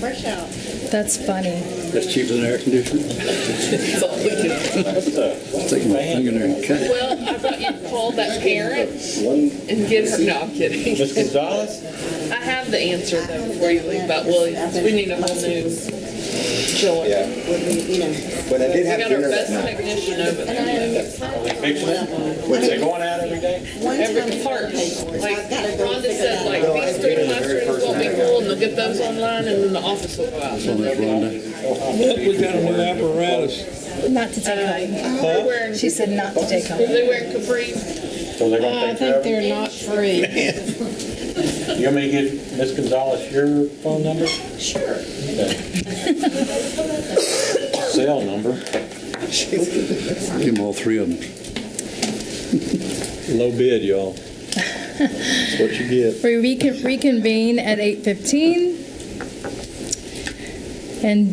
Fresh out. That's funny. That's cheaper than air conditioning. Take my finger there and cut it. Well, I thought you'd call that parent and give her, no, I'm kidding. Ms. Gonzalez? I have the answer though before you leave about Williams. We need a whole new chiller. Yeah. Would we, you know, But I did We have got our dinner best that night. technician over there. Was they going out every day? Every part, like Rhonda said, like these three classrooms won't be full and they'll get those online and then the office will go out. Well, there's Rhonda. We got a new apparatus. Not to take home. They're wearing, She said not to take home. they're wearing capris. So they're I Uh, gonna think take care they're not free. of it? You want me to give Ms. Gonzalez your phone number? sure. Cell number? Give them all three of them. Low bid, y'all. That's what you get. We recon- reconvene at 8:15. And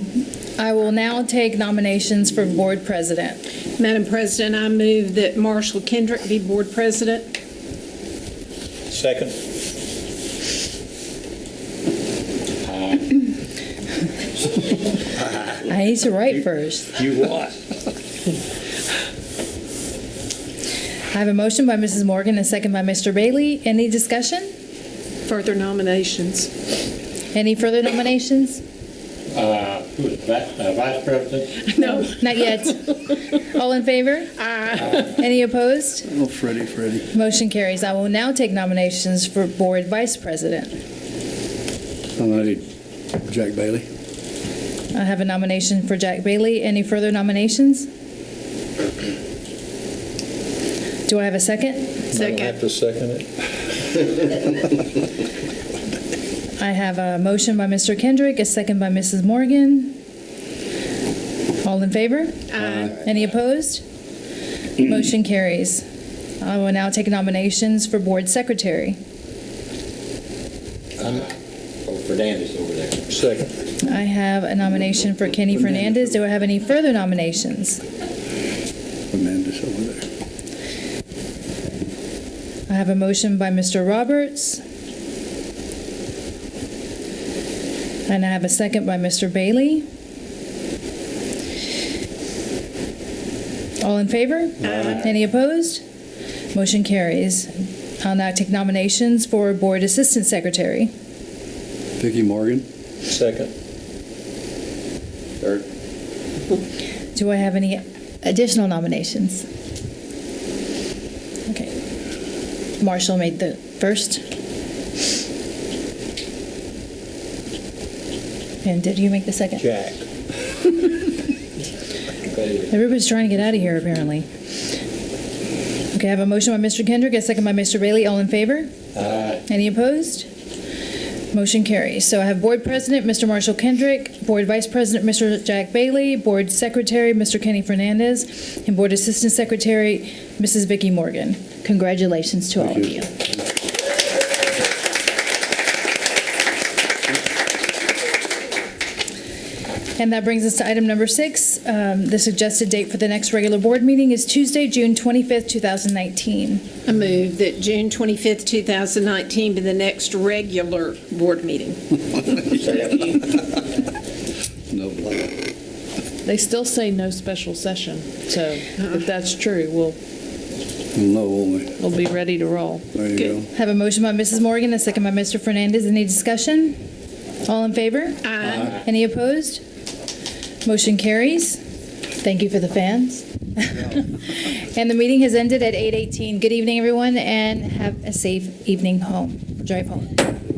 I will now take nominations for board president. Madam President, I move that Marshall Kendrick be board president. Second. I need to write first. You what? I have a motion by Mrs. Morgan, and a second by Mr. Bailey. Any discussion? Further nominations. Any further nominations? Uh, who is that? Uh, Vice President? No. Not yet. All in favor? Aye. Any opposed? Oh, Freddie, Freddie. Motion carries. I will now take nominations for board vice president. I need Jack Bailey. I have a nomination for Jack Bailey. Any further nominations? Do I have a second? I have Second. to second it. I have a motion by Mr. Kendrick, a second by Mrs. Morgan. All in favor? Aye. Any opposed? Motion carries. I will now take nominations for board secretary. Oh, Fernandez over there. Second. I have a nomination for Kenny Fernandez. Do I have any further nominations? Amanda's over there. I have a motion by Mr. Roberts. And I have a second by Mr. Bailey. All in favor? Any opposed? Motion carries. I'll now take nominations for Board Assistant Secretary. Vicki Morgan. Second. Third. Do I have any additional nominations? Okay. Marshall made the first. And did you make the second? Jack. Everybody's trying to get out of here, apparently. Okay, I have a motion by Mr. Kendrick, a second by Mr. Bailey. All in favor? Aye. Any opposed? Motion carries. So I have Board President, Mr. Marshall Kendrick, Board Vice President, Mr. Jack Bailey, Board Secretary, Mr. Kenny Fernandez, and Board Assistant Secretary, Mrs. Vicki Morgan. Congratulations to all of you. And that brings us to item number six. Um, The suggested date for the next regular board meeting is Tuesday, June 25th, 2019. I move that June 25th, 2019 be the next regular board meeting. No, like, They still say no special session, so Uh-huh. if that's true, we'll, no, only. we'll be ready to roll. There you go. Have a motion by Mrs. Morgan, a second by Mr. Fernandez. Any discussion? All in favor? Aye. Any opposed? Motion carries. Thank you for the fans. And the meeting has ended at 8:18. Good evening, everyone, and have a safe evening home, drive home.